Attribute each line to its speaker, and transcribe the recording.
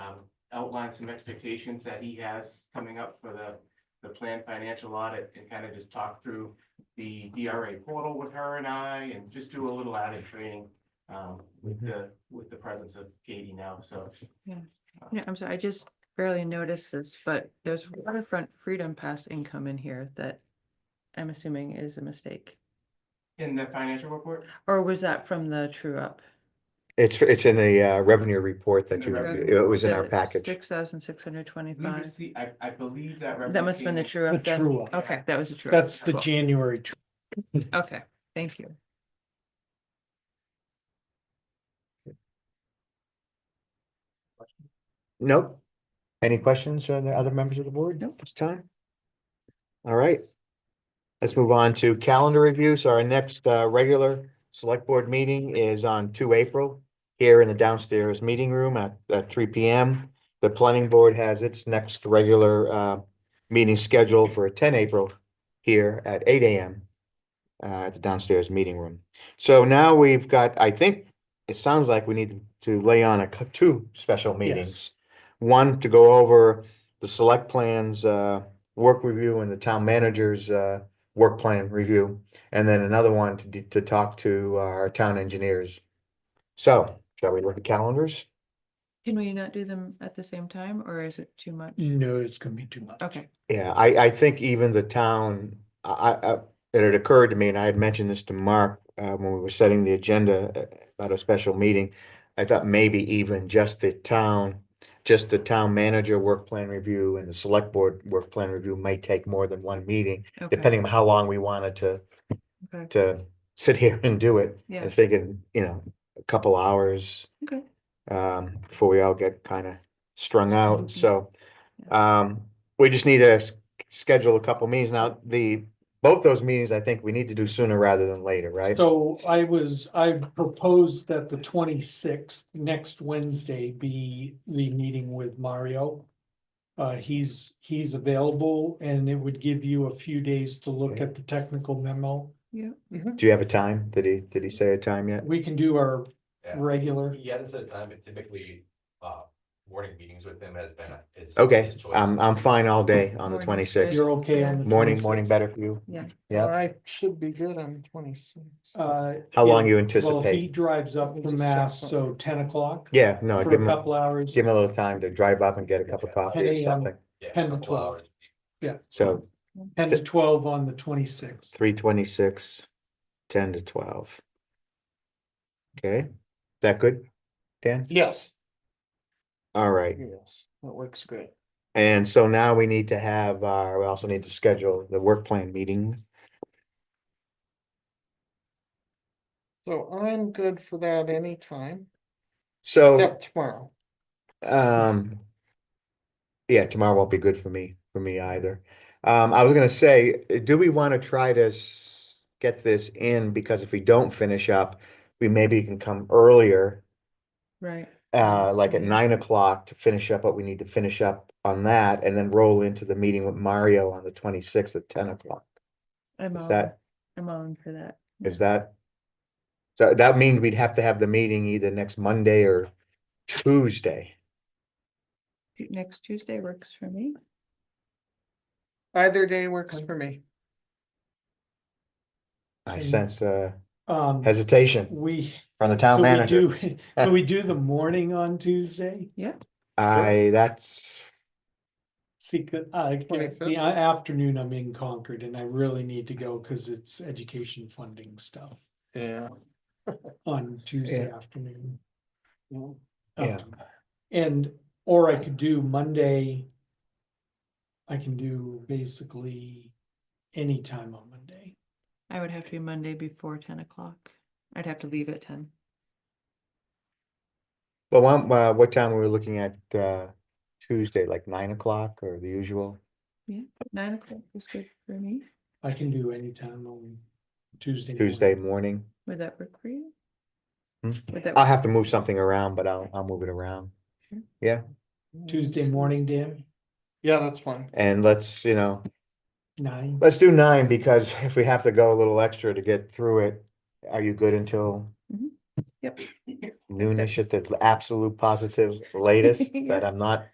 Speaker 1: outline um, some expectations that he has coming up for the, the planned financial audit and kind of just talk through the DRA portal with her and I and just do a little added training um, with the, with the presence of Katie now, so.
Speaker 2: Yeah, I'm sorry, I just barely noticed this, but there's waterfront freedom pass income in here that I'm assuming is a mistake.
Speaker 1: In the financial report,
Speaker 2: Or was that from the true up?
Speaker 3: It's, it's in the uh, revenue report that you,
Speaker 1: Revenue.
Speaker 3: it was in our package.
Speaker 2: Six thousand six hundred
Speaker 1: we
Speaker 2: twenty-five.
Speaker 1: received, I, I believe that.
Speaker 2: That must have been
Speaker 1: representation-
Speaker 2: the true
Speaker 4: The
Speaker 2: up then.
Speaker 4: true up.
Speaker 2: Okay, that was a true. up.
Speaker 4: That's the
Speaker 2: Cool.
Speaker 4: January. tw-
Speaker 2: Okay, thank you.
Speaker 3: Nope. Any questions on the other members of the board? No, this time. All right. Let's move on to calendar review. So our next uh, regular select board meeting is on two April here in the downstairs meeting room at, at three P M. The planning board has its next regular uh, meeting scheduled for ten April here at eight A M uh, at the downstairs meeting room. So now we've got, I think, it sounds like we need to lay on a, cou- two special meetings. One to go over the select plans, uh, work review and the town manager's, uh, work plan review. And then another one to, d- to talk to our town engineers. So, shall we look at calendars?
Speaker 2: Can we not do them at the same time or is it too much?
Speaker 4: No, it's gonna be too much.
Speaker 2: Okay,
Speaker 3: Yeah, I, I think even the town, I, I, I- it had occurred to me, and I had mentioned this to Mark, uh, when we were setting the agenda uh, about a special meeting. I thought maybe even just the town, just the town manager work plan review and the select board work plan review may take more than one meeting,
Speaker 2: okay,
Speaker 3: depending on how long we wanted to,
Speaker 2: Okay.
Speaker 3: to sit here and do it. I
Speaker 2: yeah,
Speaker 3: was thinking, you know, a couple hours
Speaker 2: okay.
Speaker 3: um, before we all get kind of strung out,
Speaker 2: Mhm.
Speaker 3: so. Um, we just need to s- schedule a couple meetings now, the, both those meetings, I think we need to do sooner rather than later, right?
Speaker 4: So I was, I proposed that the twenty-sixth, next Wednesday, be the meeting with Mario. Uh, he's, he's available and it would give you a few days to look
Speaker 3: Okay.
Speaker 4: at the technical memo. Mm-hmm.
Speaker 3: Do you have a time? Did he, did he say a time yet?
Speaker 4: We can do our
Speaker 5: Yeah.
Speaker 4: regular,
Speaker 5: He hasn't set a time, but typically, uh, morning meetings with him has been his.
Speaker 3: Okay, um,
Speaker 5: his choice.
Speaker 3: I'm, I'm fine all day on the
Speaker 2: Morning's
Speaker 3: twenty-sixth,
Speaker 2: good.
Speaker 4: you're okay on the.
Speaker 3: morning, morning
Speaker 4: 26th?
Speaker 3: better for you, Yeah.
Speaker 6: I should be good on twenty-six.
Speaker 4: Uh.
Speaker 3: how long
Speaker 4: yeah.
Speaker 3: you
Speaker 4: Well, he
Speaker 3: anticipate?
Speaker 4: drives up
Speaker 6: We
Speaker 4: from
Speaker 6: just got
Speaker 4: Mass,
Speaker 6: some-
Speaker 4: so ten o'clock.
Speaker 3: Yeah, no,
Speaker 4: For a
Speaker 3: give him, a-
Speaker 4: couple hours.
Speaker 3: give him a little time to drive up and get a cup of
Speaker 4: 10
Speaker 3: coffee or
Speaker 4: a.m.
Speaker 3: something,
Speaker 5: Yeah, a
Speaker 4: 10 to
Speaker 5: couple
Speaker 4: 12.
Speaker 5: hours.
Speaker 3: so
Speaker 4: Ten to twelve on the twenty-sixth.
Speaker 3: three twenty-six, ten to twelve. Okay, is that good, Dan?
Speaker 6: Yes.
Speaker 3: All right,
Speaker 6: Yes, that works great.
Speaker 3: And so now we need to have, uh, we also need to schedule the work plan meeting.
Speaker 6: So I'm good for that anytime,
Speaker 3: So,
Speaker 6: except tomorrow.
Speaker 3: um. Yeah, tomorrow won't be good for me, for me either. Um, I was gonna say, uh, do we wanna try to s- get this in? Because if we don't finish up, we maybe can come earlier,
Speaker 2: Right,
Speaker 3: uh, like at
Speaker 2: Absolutely.
Speaker 3: nine o'clock to finish up what we need to finish up on that. And then roll into the meeting with Mario on the twenty-sixth at ten o'clock.
Speaker 2: I'm
Speaker 3: Is
Speaker 2: on,
Speaker 3: that?
Speaker 2: I'm on for that.
Speaker 3: Is that? So that means we'd have to have the meeting either next Monday or Tuesday.
Speaker 2: Next Tuesday works for me.
Speaker 6: Either day works for me.
Speaker 3: I
Speaker 4: Mm.
Speaker 3: sense uh
Speaker 4: Um,
Speaker 3: hesitation
Speaker 4: we,
Speaker 3: from the town
Speaker 4: can we
Speaker 3: manager.
Speaker 4: do, can we do the morning on Tuesday?
Speaker 2: Yeah,
Speaker 3: I, that's,
Speaker 4: See, 'cause uh, I, like,
Speaker 6: 25th?
Speaker 4: the a- afternoon I'm in Concord and I really need to go because it's education funding stuff
Speaker 6: Yeah.
Speaker 4: on Tuesday afternoon.
Speaker 3: Yeah.
Speaker 4: Um, And, or I could do Monday. I can do basically any time on Monday.
Speaker 2: I would have to be Monday before ten o'clock. I'd have to leave at ten.
Speaker 3: well, one, uh, what time were we looking at uh Tuesday, like nine o'clock or the usual?
Speaker 2: Nine o'clock is good for me.
Speaker 4: I can do any time on Tuesday. morning.
Speaker 3: Tuesday morning?
Speaker 2: Would that work for you?
Speaker 3: Hmm?
Speaker 2: Would that
Speaker 3: I'll
Speaker 2: work?
Speaker 3: have to move something around, but I'll, I'll move it around.
Speaker 4: Tuesday morning, Dan,
Speaker 6: Mm. Yeah, that's fine.
Speaker 3: And let's, you know,
Speaker 4: nine.
Speaker 3: let's do nine because if we have to go a little extra to get through it, are you good until?
Speaker 2: Mm-hmm. Yep.
Speaker 3: noonish at the absolute positive latest
Speaker 2: Yeah.
Speaker 3: that I'm not